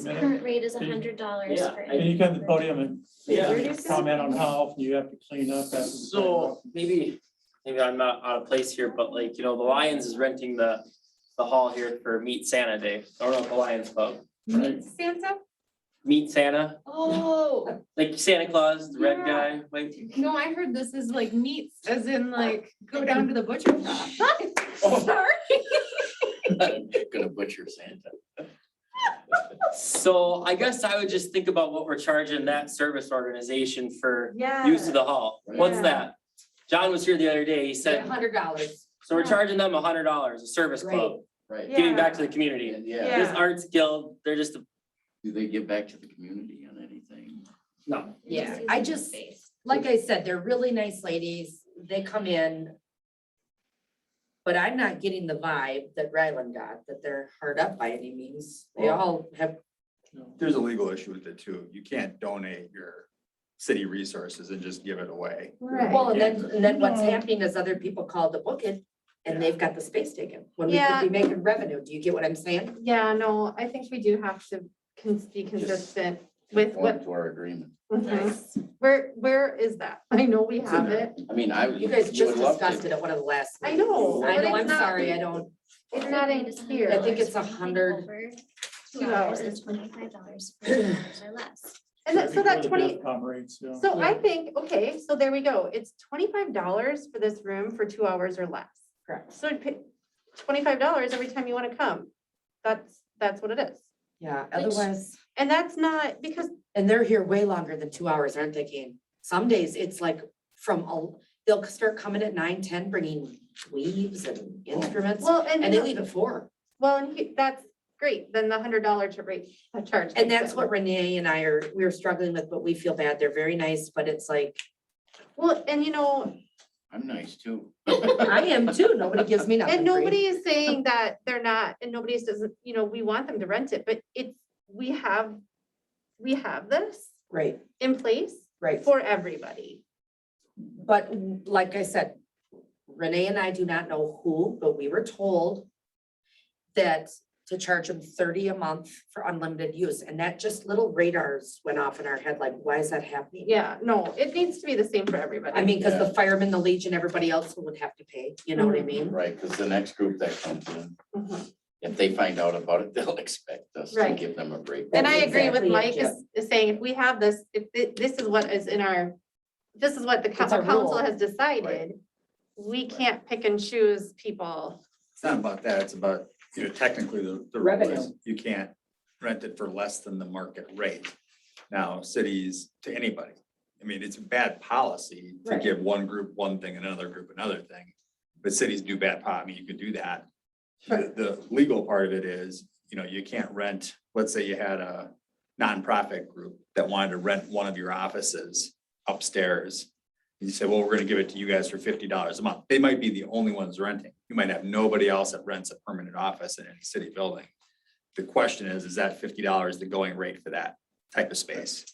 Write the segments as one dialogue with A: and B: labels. A: His
B: Madam-
A: current rate is a
B: can you-
A: hundred dollars
C: Yeah,
A: for.
C: I-
A: any
B: Can you come to the podium and
C: Yeah,
B: comment on how often you have to clean up after? the
C: so maybe, maybe I'm not out of place here, but like, you know, the Lions is renting the, the hall here for Meet Santa Day, or the Lions Club.
B: Right.
D: Santa?
C: Meet Santa,
D: Oh,
C: like Santa Claus, the red
D: Yeah.
C: guy, like,
D: no, I heard this is like meats, as in like Oh. go down to the butcher shop. Sorry.
E: Gonna butcher Santa.
C: so I guess I would just think about what we're charging that service organization for
D: Yeah.
C: use of the hall. What's
D: Yeah.
C: that? John was here the other day, he
D: A
C: said,
D: hundred dollars.
C: so we're charging them a hundred dollars, a service club,
E: Right,
C: giving back to the community.
E: yeah,
C: This
D: Yeah.
C: arts guild, they're just, a-
E: do they give back to the community on anything?
C: no,
F: Yeah,
A: He's
F: I
A: using
F: just-
A: space.
F: like I said, they're really nice ladies. They come in. But I'm not getting the vibe that Ryland got, that they're hard up by any means. They all have,
G: There's a legal issue with it too. You can't donate your city resources and just give it away.
D: Right.
F: well, and then, and then what's
D: No.
F: happening is other people call to book it and they've got the space taken. When we could
D: Yeah.
F: be making revenue, do you get what I'm saying?
D: Yeah, no, I think we do have to cons- be consistent with
E: Conform
D: what,
E: To our agreement.
D: Mhm. where, where is that? I know we
E: It's in
D: have
E: there.
D: it.
E: I mean, I would.
F: You guys
E: you would
F: just
E: love to-
F: discussed it at one of the last.
D: I know,
F: meetings. I
D: but
F: know,
D: it's
F: I'm
D: not-
F: sorry, I don't,
D: It's not in here.
F: I think it's a
A: Anything
F: hundred-
A: over
D: Two
A: Two hours
D: hours.
A: is twenty-five dollars or less.
D: And that, so that
B: Before the
D: twenty,
B: DevCom rates, yeah.
D: so I
F: Yeah.
D: think, okay, so there we go. It's twenty-five dollars for this room for two hours or less.
F: Correct.
D: So it'd pay twenty-five dollars every time you wanna come. That's, that's what it is.
F: yeah, otherwise,
D: And that's not because,
F: and they're here way longer than two hours, aren't they, Kane? Some days it's like from, el- they'll start coming at nine, ten, bringing weaves and instruments.
D: well,
F: And they
D: and,
F: leave at four.
D: well, and he- that's great, then the hundred dollar to rate, a charge.
F: And
D: makes
F: that's
D: sense.
F: what Renee and I are, we're struggling with, but we feel bad. They're very nice, but it's like,
D: Well, and you know,
E: I'm nice too.
F: I am too. Nobody gives me nothing.
D: and
F: free.
D: nobody is saying that they're not, and nobody's doesn't, you know, we want them to rent it, but it's, we have, we have this
F: Right,
D: in place
F: right.
D: for everybody.
F: But like I said, Renee and I do not know who, but we were told that to charge them thirty a month for unlimited use. And that just little radars went off in our head, like, why is that happening?
D: Yeah, no, it needs to be the same for everybody.
F: I mean, because
E: Yeah.
F: the firemen, the legion, everybody else would have to pay, you know what I
D: Mm-hmm.
F: mean?
E: Right, because the next group that comes in,
D: Mhm.
E: if they find out about it, they'll expect us to
D: Right.
E: give them a break.
D: And I
F: That's
D: agree with
F: exactly it,
D: Mike
F: Jeff.
D: is, is saying, if we have this, if, thi- this is what is in our, this is what the coun-
F: It's our
D: council
F: rule.
D: has decided. We can't pick and choose people.
G: It's not about that, it's about, you know, technically the, the rule
F: Revenue.
G: is you can't rent it for less than the market rate. Now, cities to anybody, I mean, it's bad policy to
F: Right.
G: give one group one thing and another group another thing. But cities do bad, po- I mean, you could do that. The, the legal part of it is, you know, you can't rent, let's say you had a nonprofit group that wanted to rent one of your offices upstairs. You say, well, we're gonna give it to you guys for fifty dollars a month. They might be the only ones renting. You might have nobody else that rents a permanent office in a city building. The question is, is that fifty dollars the going rate for that type of space?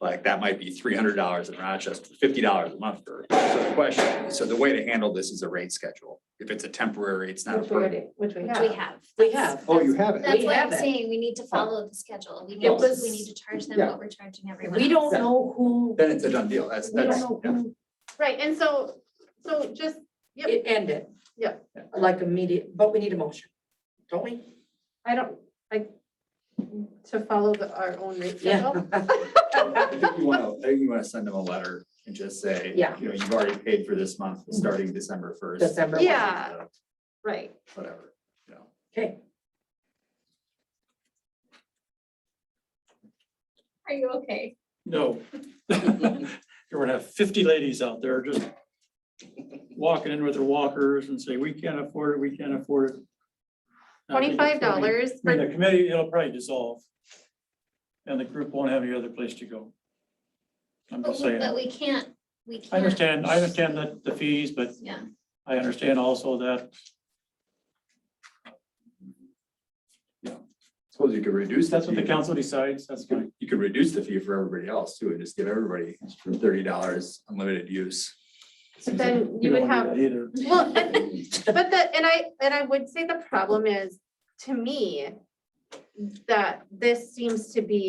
G: Like, that might be three hundred dollars in Rochester, fifty dollars a month for, so the question, so the way to handle this is a rate schedule. If it's a temporary, it's not a
D: Which we
G: permanent.
D: already, which we
A: Which we
D: have.
A: have.
F: We
A: That's-
F: have.
G: Oh, you have it.
A: That's why I'm
F: have it.
A: saying we need to follow the schedule. We
F: It
A: need, to- we
F: was-
A: need to charge them
G: yeah.
A: what we're charging everyone.
F: We
A: else.
F: don't know who,
G: Then it's a done deal. That's,
F: we don't
G: that's.
F: know
G: yeah.
F: who
D: Right, and so, so just, Yep.
F: it ended.
D: Yeah.
F: Like immediate, but we need a motion, don't we?
D: I don't, I, to follow the, our own rate schedule.
G: I think you wanna, I think you wanna send them a letter and just say,
F: Yeah.
G: you know, you've already paid for this month, starting December first. Uh,
F: December. one.
D: Yeah. Right,
G: Whatever, you know.
F: Okay,
A: Are you okay?
B: No. You're gonna have fifty ladies out there just walking in with their walkers and say, we can't afford it, we can't afford it. I think it's gonna
D: twenty-five
B: be-
D: dollars
B: I mean,
D: for,
B: the committee, it'll probably dissolve. And the group won't have any other place to go. I'm
A: But
B: just
A: we, but
B: saying,
A: we can't, we can't.
B: I understand, I understand that the fees, but
A: Yeah,
B: I understand also that
G: Suppose you could reduce.
B: that's what the
G: fee.
B: council decides, that's
G: You
B: fine.
G: could- You could reduce the fee for everybody else too, and just give everybody thirty dollars unlimited use.
D: but then
B: We
D: you
B: don't
D: would
B: wanna do
D: have,
B: that Either.
D: well, and- but the, and I, and I would say the problem is, to me, that this seems to be